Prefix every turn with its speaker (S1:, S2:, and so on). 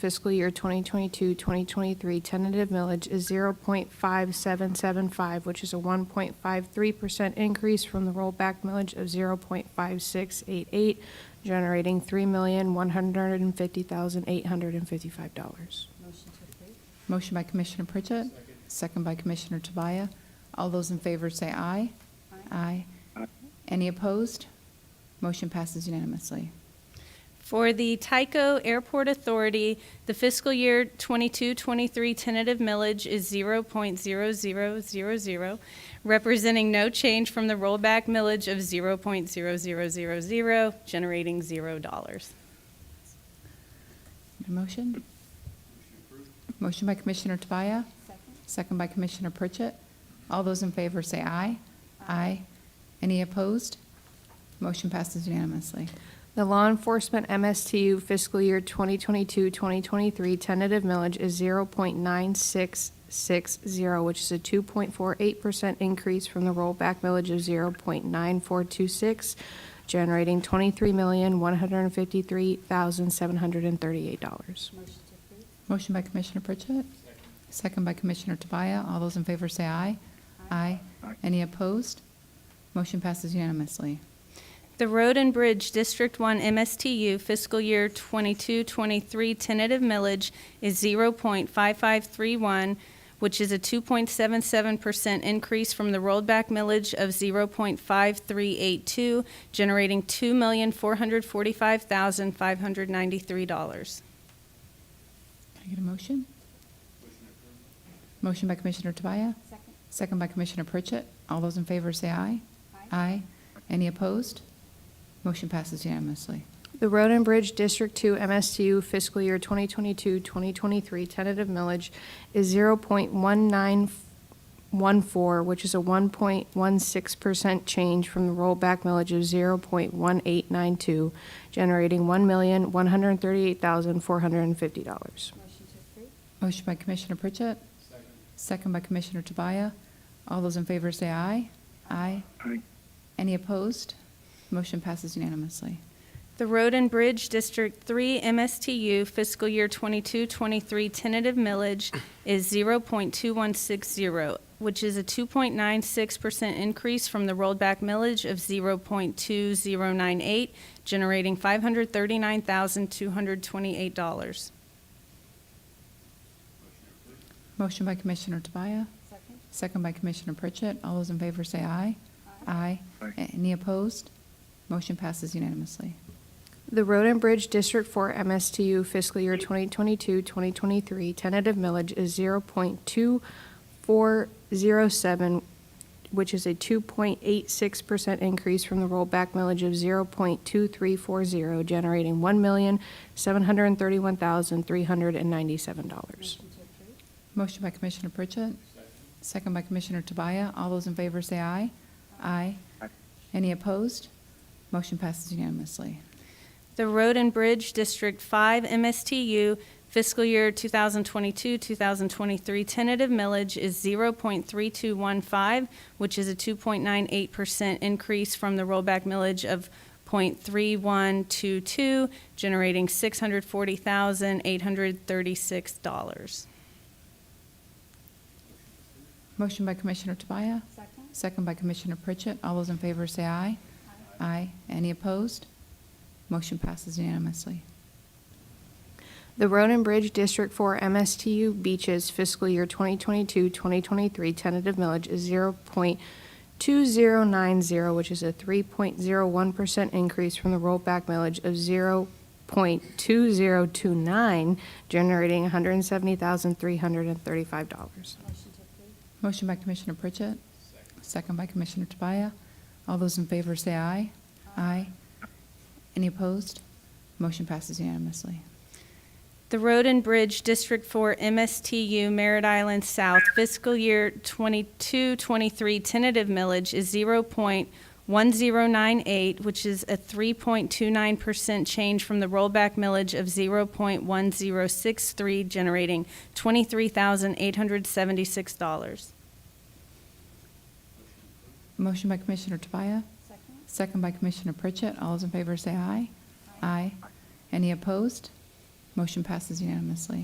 S1: fiscal year 2022-2023 tentative millage is 0.5775, which is a 1.53% increase from the rollback millage of 0.5688, generating $3,150,855.
S2: Motion to approve.
S3: Motion by Commissioner Pritchett. Second by Commissioner Tobias. All those in favor say aye. Aye. Any opposed? Motion passes unanimously.
S4: For the Tyco Airport Authority, the fiscal year 22-23 tentative millage is 0.0000, representing no change from the rollback millage of 0.0000, generating $0.
S3: Need a Motion? Motion by Commissioner Tobias.
S2: Second.
S3: Second by Commissioner Pritchett. All those in favor say aye. Aye. Any opposed? Motion passes unanimously.
S1: The law enforcement MSTU fiscal year 2022-2023 tentative millage is 0.9660, which is a 2.48% increase from the rollback millage of 0.9426, generating $23,153,738.
S2: Motion to approve.
S3: Motion by Commissioner Pritchett. Second by Commissioner Tobias. All those in favor say aye. Aye. Any opposed? Motion passes unanimously.
S4: The Road and Bridge District 1 MSTU fiscal year 22-23 tentative millage is 0.5531, which is a 2.77% increase from the rollback millage of 0.5382, generating $2,445,593.
S3: Can I get a motion? Motion by Commissioner Tobias.
S2: Second.
S3: Second by Commissioner Pritchett. All those in favor say aye.
S2: Aye.
S3: Aye. Any opposed? Motion passes unanimously.
S1: The Road and Bridge District 2 MSTU fiscal year 2022-2023 tentative millage is 0.1914, which is a 1.16% change from the rollback millage of 0.1892, generating $1,138,450.
S2: Motion to approve.
S3: Motion by Commissioner Pritchett. Second by Commissioner Tobias. All those in favor say aye. Aye. Any opposed? Motion passes unanimously.
S4: The Road and Bridge District 3 MSTU fiscal year 22-23 tentative millage is 0.2160, which is a 2.96% increase from the rollback millage of 0.2098, generating $539,228.
S3: Motion by Commissioner Tobias.
S2: Second.
S3: Second by Commissioner Pritchett. All those in favor say aye. Aye. Any opposed? Motion passes unanimously.
S1: The Road and Bridge District 4 MSTU fiscal year 2022-2023 tentative millage is 0.2407, which is a 2.86% increase from the rollback millage of 0.2340, generating
S2: Motion
S1: $1,731,397.
S2: to approve.
S3: Motion by Commissioner Pritchett. Second by Commissioner Tobias. All those in favor say aye. Aye. Any opposed? Motion passes unanimously.
S4: The Road and Bridge District 5 MSTU fiscal year 2022-2023 tentative millage is 0.3215, which is a 2.98% increase from the rollback millage of .3122, generating $640,836.
S3: Motion by Commissioner Tobias.
S2: Second.
S3: Second by Commissioner Pritchett. All those in favor say aye. Aye. Any opposed? Motion passes unanimously.
S1: The Road and Bridge District 4 MSTU Beaches fiscal year 2022-2023 tentative millage is 0.2090, which is a 3.01% increase from the rollback millage of 0.2029, generating
S2: Motion
S1: $170,335.
S2: to approve.
S3: Motion by Commissioner Pritchett. Second by Commissioner Tobias. All those in favor say aye. Aye. Any opposed? Motion passes unanimously.
S4: The Road and Bridge District 4 MSTU Merritt Island South fiscal year 22-23 tentative millage is 0.1098, which is a 3.29% change from the rollback millage of 0.1063, generating $23,876.
S3: Motion by Commissioner Tobias.
S2: Second.
S3: Second by Commissioner Pritchett. All those in favor say aye. Aye. Any opposed? Motion passes unanimously.